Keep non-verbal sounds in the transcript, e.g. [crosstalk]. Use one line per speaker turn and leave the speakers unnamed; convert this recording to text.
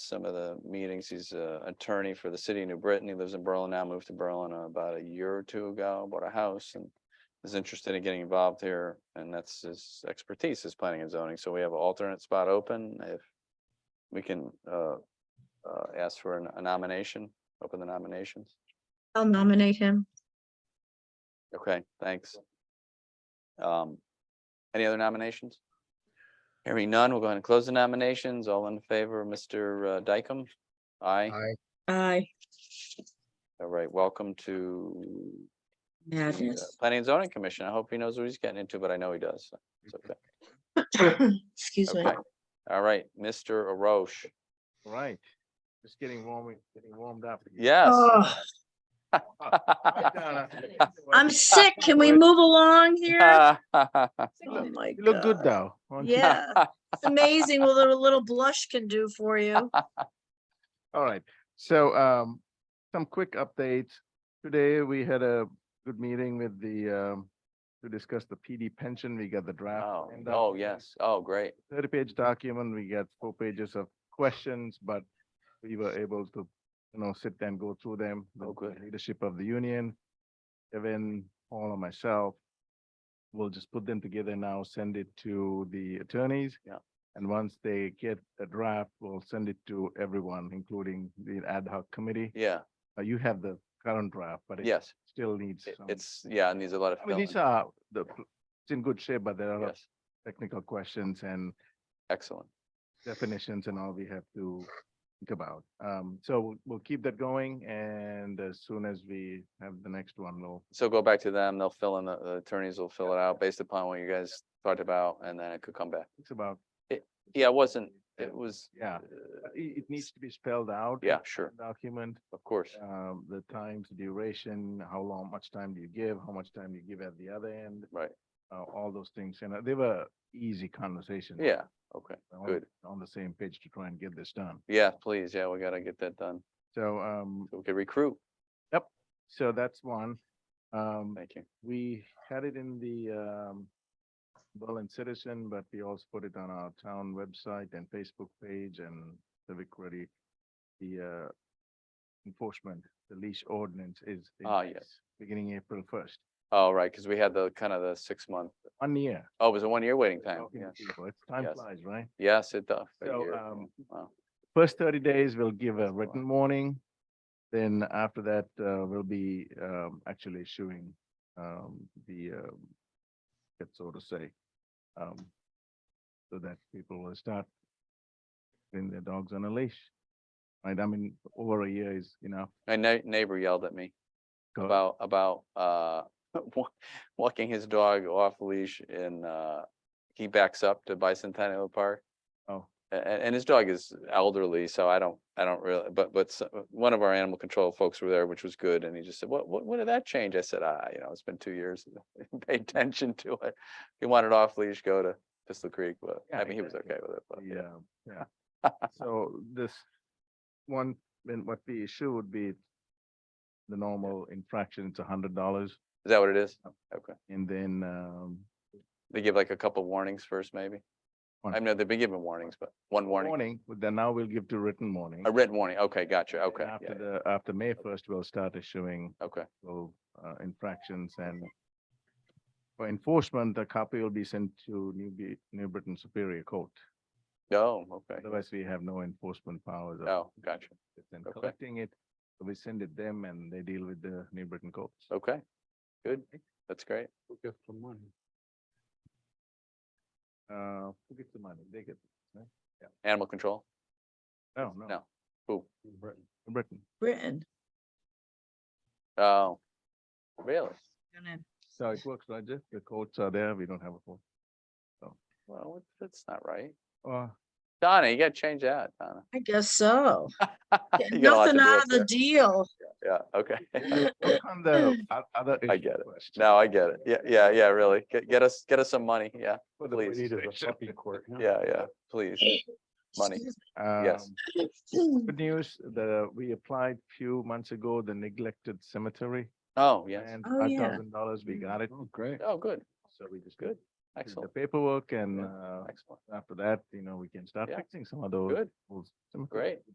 some of the meetings. He's a attorney for the city of New Britain. He lives in Berlin now, moved to Berlin uh, about a year or two ago, bought a house and is interested in getting involved here, and that's his expertise is planning and zoning. So we have an alternate spot open. If we can uh, uh, ask for a nomination, open the nominations.
I'll nominate him.
Okay, thanks. Um, any other nominations? Hearing none, we'll go ahead and close the nominations. All in favor, Mr. Dykem? Aye.
Aye.
Aye.
All right, welcome to the, uh,
Madness.
Planning and Zoning Commission. I hope he knows what he's getting into, but I know he does. so It's
Mm-hmm.
okay.
Excuse me.
Okay. All right, Mr. Arosh.
Right. Just getting warm, getting warmed up.
[laughs]
[laughs]
Yes.
Oh,
Hi, Donna.
I'm sick. Can we move along here?
[laughs]
Oh
You
my
You look good
God.
though. aren't you?
Yeah, it's amazing what a little blush can do for
[laughs]
you.
All right. So um, some quick updates. Today, we had a good meeting with the um, to discuss the PD pension. We got the draft.
Oh,
end up.
oh, yes. Oh, great.
thirty-page document, we get four pages of questions, but we were able to, you know, sit and go through them.
Oh,
with the
good.
Leadership of the union, Kevin, Paul, and myself. We'll just put them together now, send it to the attorneys.
Yeah.
And once they get a draft, we'll send it to everyone, including the ad hoc committee.
Yeah,
Uh, You have the current draft, but it
yes.
still needs
It-
some.
It's, yeah, it needs a lot of
I mean,
filling.
these are, the, it's in good shape, but there are
Yes,
technical questions and
excellent.
definitions and all we have to think about. Um, so we'll- we'll keep that going and as soon as we have the next one, we'll.
So go back to them, they'll fill in, the the attorneys will fill it out based upon what you guys talked about, and then it could come back.
It's about,
Yeah, it wasn't, it was,
yeah,
uh,
it, it needs to be spelled out. in
Yeah, sure.
the Document,
of course,
um, the times, duration, how long, much time do you give, how much time do you give at the other end,
right,
uh, all those things. And uh, they were easy conversations.
yeah, okay,
We're on-
good.
On the same page to try and get this done.
yeah, please, yeah, we gotta get that done,
So, um,
so we can recruit,
so that's one. Um,
thank you.
we had it in the um Berlin Citizen, but we also put it on our town website and Facebook page and civic ready. The uh enforcement, the leash ordinance is. in
Ah, yes.
place Beginning April first,
All right, because we had the kind of the six month,
one year.
oh, it was a one year waiting time,
talking to
yes,
people. It's time
Yes.
flies, right?
yes, it does. a
So,
year,
um,
wow.
First thirty days, we'll give a
That's a lot.
written warning. Then after that, uh, we'll be um actually issuing um the um, it's so to say. Um, so that people will start putting their dogs on a leash. Right, I mean, over a year is enough.
My nei- neighbor yelled at me
Go-
about, about, uh, [laughs] wa- walking his dog off leash and, uh, he backs up to Bicentennial Park.
Oh,
And, and his dog is elderly, so I don't, I don't really, but, but s- uh, one of our animal control folks were there, which was good, and he just said, what, what, when did that change? I said, ah, you know, it's been two years. [laughs] Pay attention to it. If you want it off leash, go to Pistol Creek, but
Yeah,
I mean, he was
exactly.
okay with it, but yeah,
yeah, uh,
[laughs]
yeah. So this one, then what we issue would be the normal infraction, it's a hundred dollars.
is that what it is?
Yep.
Okay,
And then, um,
they give like a couple warnings first, maybe? I
One.
know they've been given warnings, but one warning,
warning, but then now we'll give to written warning.
a written warning, okay, gotcha,
and
okay, yeah,
After the, after May first, we'll start issuing
yeah, okay,
little, uh, infractions and for enforcement, the copy will be sent to New Be- New Britain Superior Court.
oh, okay,
Otherwise, we have no enforcement powers. of
oh, gotcha,
it And
okay.
collecting it, So we send it them and they deal with the New Britain courts.
okay, good, that's great.
Who gets the money? Uh, who gets the money? They get,
Animal control,
no, no.
No. Who?
New Britain. New Britain.
Britain.
oh, really?
Gonna-
So it works, Roger. The courts are there. We don't have a court.
Well, what- that's not right.
Uh,
Donna, you gotta change that, Donna. [laughs]
I guess
[laughs]
so.
You got a lot to
Nothing
do
out
up
of the
there.
deal.
Yeah, okay. [laughs]
Work on the o- other.
I
issue
get it.
first.
No, I get it. Yeah, yeah, yeah, really. Get, get us, get us some money. Yeah,
For the
please.
police station.
court. [laughs] Yeah, yeah, please. Money.
Excuse
Yes.
Um, [laughs]
[laughs] me.
Good news, the, we applied few months ago, the neglected cemetery.
Oh, yes.
And
Oh,
five
yeah.
thousand dollars, we got it. Great.
Oh, good.
So we just
Good.
did the
Excellent,
paperwork and,
Yeah.
uh,
excellent.
after that, you know, we can start
Yeah.
fixing some of those.
Good,
old cemeteries.
great.